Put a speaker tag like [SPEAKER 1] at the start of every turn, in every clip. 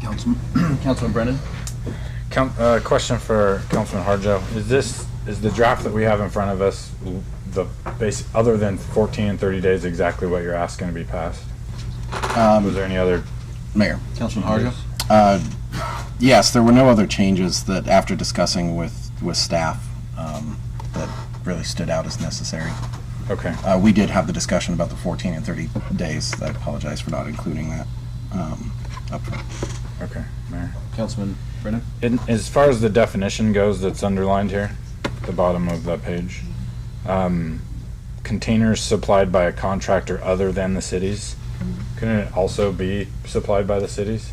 [SPEAKER 1] Council- Councilman Brennan?
[SPEAKER 2] Com- uh, question for Councilman Harjo. Is this, is the draft that we have in front of us, w- the base, other than fourteen and thirty days, exactly what you're asking to be passed? Was there any other?
[SPEAKER 3] Mayor.
[SPEAKER 1] Councilman Harjo?
[SPEAKER 3] Uh, Yes, there were no other changes that, after discussing with, with staff, um, that really stood out as necessary.
[SPEAKER 2] Okay,
[SPEAKER 3] Uh, We did have the discussion about the 14 and 30 days. I apologize for not including that um, up front.
[SPEAKER 2] okay, Mayor.
[SPEAKER 1] Councilman Brennan?
[SPEAKER 2] In, as far as the definition goes that's underlined here, at the bottom of that page, um, containers supplied by a contractor other than the cities, couldn't it also be supplied by the cities?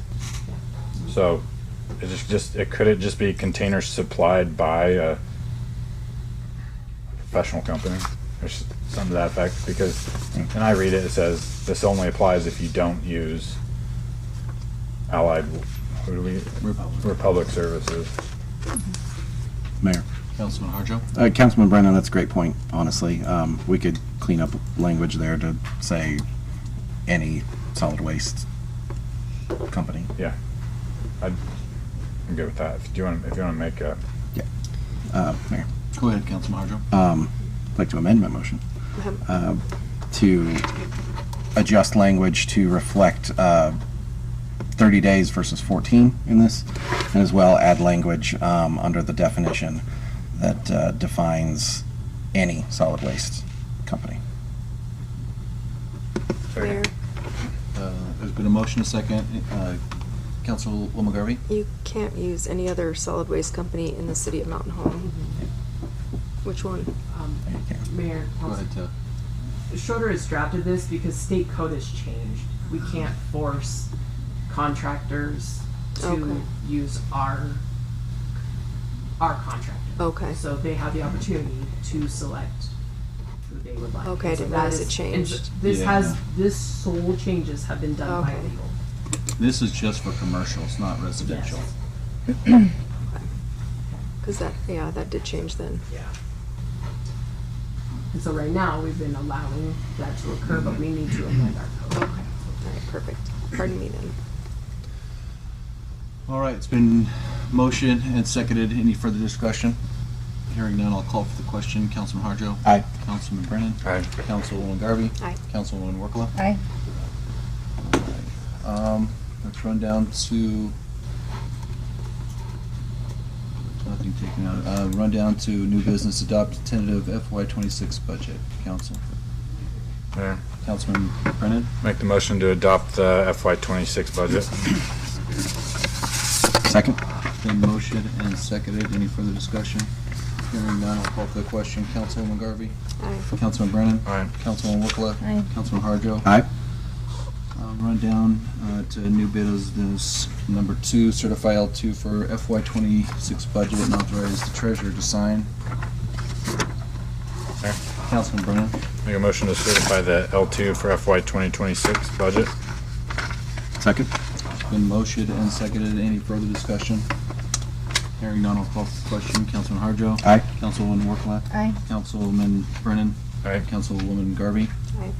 [SPEAKER 2] So, it is just, it, could it just be containers supplied by a professional company? Or s- some to that effect, because, and I read it, it says, this only applies if you don't use allied, who do we, Republic Services.
[SPEAKER 3] Mayor.
[SPEAKER 1] Councilman Harjo?
[SPEAKER 3] Uh, Councilman Brennan, that's a great point, honestly. Um, We could clean up language there to say any solid waste company.
[SPEAKER 2] I'm good with that. If you want, if you want to make a,
[SPEAKER 3] Uh, Mayor.
[SPEAKER 1] Go ahead, Councilman Harjo.
[SPEAKER 3] um, I'd like to amend my motion uh, to adjust language to reflect uh, 30 days versus 14 in this, and as well add language um, under the definition that uh, defines any solid waste company.
[SPEAKER 4] Mayor,
[SPEAKER 1] Uh, There's been a motion, a second. Uh, Councilwoman Garvey?
[SPEAKER 4] you can't use any other solid waste company in the city of Mountain Home. Which one?
[SPEAKER 5] Um,
[SPEAKER 3] There you go.
[SPEAKER 5] Mayor,
[SPEAKER 1] Go
[SPEAKER 5] Council-
[SPEAKER 1] ahead, uh,
[SPEAKER 5] Schroeder has drafted this because state code has changed. We can't force contractors
[SPEAKER 4] Okay.
[SPEAKER 5] to use our, our contractor.
[SPEAKER 4] Okay,
[SPEAKER 5] So they have the opportunity to select who they would like.
[SPEAKER 4] Okay, I
[SPEAKER 5] And so
[SPEAKER 4] didn't
[SPEAKER 5] that
[SPEAKER 4] realize
[SPEAKER 5] is-
[SPEAKER 4] it
[SPEAKER 5] and so
[SPEAKER 4] changed.
[SPEAKER 5] This has,
[SPEAKER 1] Yeah.
[SPEAKER 5] this sole changes have been done by
[SPEAKER 4] Okay.
[SPEAKER 5] legal.
[SPEAKER 1] This is just for commercial, it's not residential.
[SPEAKER 5] Yes.
[SPEAKER 4] because that, yeah, that did change then.
[SPEAKER 5] Yeah. And so right now, we've been allowing that to occur, but we need to amend our code.
[SPEAKER 4] All right, perfect. Pardon me then.
[SPEAKER 1] All right, it's been motion and seconded. Any further discussion? Hearing none, I'll call for the question. Councilman Harjo?
[SPEAKER 3] Aye.
[SPEAKER 1] Councilman Brennan?
[SPEAKER 2] I,
[SPEAKER 1] Councilwoman Garvey?
[SPEAKER 4] Aye.
[SPEAKER 1] Councilwoman Workla?
[SPEAKER 6] Aye.
[SPEAKER 1] Um, let's run down to. Nothing taken out, uh, run down to new business, adopt tentative FY twenty-six budget, council.
[SPEAKER 2] Mayor,
[SPEAKER 1] Councilman Brennan,
[SPEAKER 2] make the motion to adopt the FY twenty-six budget.
[SPEAKER 3] Second?
[SPEAKER 1] been motion and seconded, any further discussion? Hearing none, I'll call for the question, Councilwoman Garvey,
[SPEAKER 4] Aye.
[SPEAKER 1] Councilman Brennan,
[SPEAKER 2] Aye.
[SPEAKER 1] Councilman Workla,
[SPEAKER 6] Aye.
[SPEAKER 1] Councilman Harjo.
[SPEAKER 3] Aye.
[SPEAKER 1] Um, run down, uh, to new business number two, certify L two for FY twenty-six budget and authorize the treasurer to sign.
[SPEAKER 2] Mayor,
[SPEAKER 1] Councilman Brennan,
[SPEAKER 2] make a motion to certify the L two for FY twenty twenty-six budget.
[SPEAKER 3] Second?
[SPEAKER 1] it's been motioned and seconded. Any further discussion? Hearing none, I'll call for the question. Councilman Harjo.
[SPEAKER 3] Aye.
[SPEAKER 1] Councilwoman Workla.
[SPEAKER 6] Aye.
[SPEAKER 1] Councilman Brennan.
[SPEAKER 2] Aye.
[SPEAKER 1] Councilwoman Garvey.
[SPEAKER 4] Aye.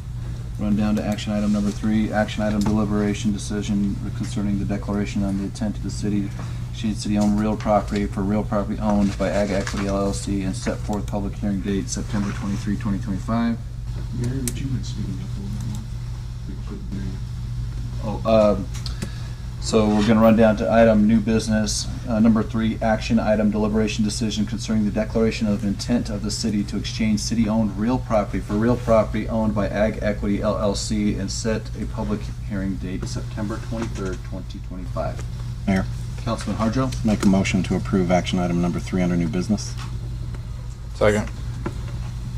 [SPEAKER 1] Run down to action item number three, action item deliberation decision concerning the declaration on the intent of the city, Shade City owned real property for real property owned by Ag Equity LLC and set forth public hearing date September 23, 2025.
[SPEAKER 7] Mary, would you mind speaking up a little bit more? We couldn't hear you.
[SPEAKER 1] Oh, um, so we're gonna run down to item new business, uh, number three, action item deliberation decision concerning the declaration of intent of the city to exchange city-owned real property for real property owned by Ag Equity LLC and set a public hearing date September twenty-third, twenty twenty-five.
[SPEAKER 3] Mayor.
[SPEAKER 1] Councilman Harjo?
[SPEAKER 3] Make a motion to approve action item number three under new business.
[SPEAKER 2] Second.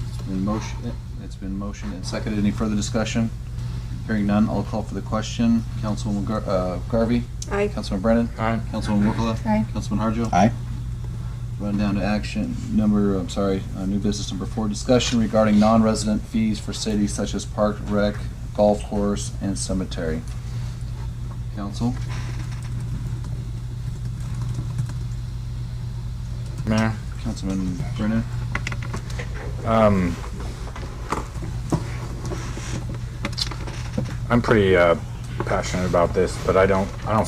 [SPEAKER 1] It's been motion, it's been motioned and seconded. Any further discussion? Hearing none, I'll call for the question. Councilwoman Gar- uh, Garvey?
[SPEAKER 4] Aye.
[SPEAKER 1] Councilman Brennan?
[SPEAKER 2] Aye.
[SPEAKER 1] Councilman Workla?
[SPEAKER 6] Aye.
[SPEAKER 1] Councilman Harjo?
[SPEAKER 3] Aye.
[SPEAKER 1] Run down to action number, I'm sorry, uh, new business number four, discussion regarding non-resident fees for cities such as park, rec, golf course, and cemetery. Council,
[SPEAKER 2] Mayor,
[SPEAKER 1] Councilman Brennan,
[SPEAKER 2] um, I'm pretty, uh, passionate about this, but I don't, I don't